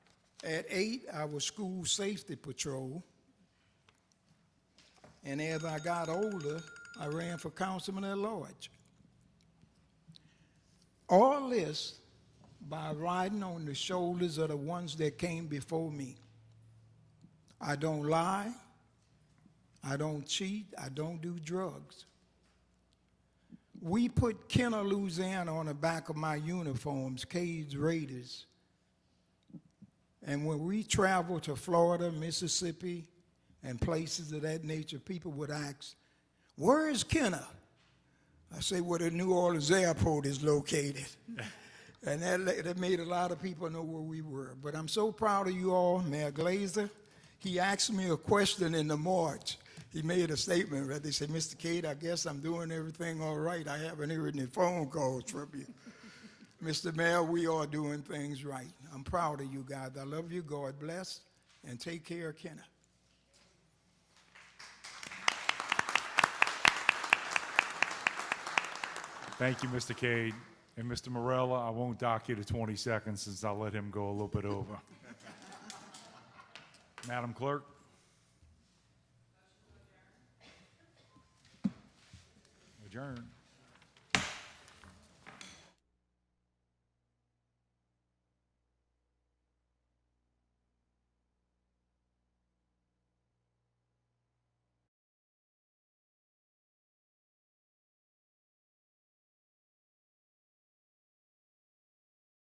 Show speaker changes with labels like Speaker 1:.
Speaker 1: At eight, I was school safety patrol. And as I got older, I ran for councilman at large. All this by riding on the shoulders of the ones that came before me. I don't lie. I don't cheat. I don't do drugs. We put Kenner, Louisiana on the back of my uniforms, Cades Raiders. And when we travel to Florida, Mississippi, and places of that nature, people would ask, Where is Kenner? I say, Where the New Orleans airport is located. and that, la- that made a lot of people know where we were. But I'm so proud of you all, Mayor Glazer. He asked me a question in the march. He made a statement, right? They said, Mr. Cade, I guess I'm doing everything all right. I haven't heard any phone calls from you. Mr. Mayor, we are doing things right. I'm proud of you guys. I love you. God bless. And take care, Kenna.
Speaker 2: Thank you, Mr. Cade. And Mr. Morella, I won't dock you to 20 seconds since I let him go a little bit over. Madam Clerk? Adjourn.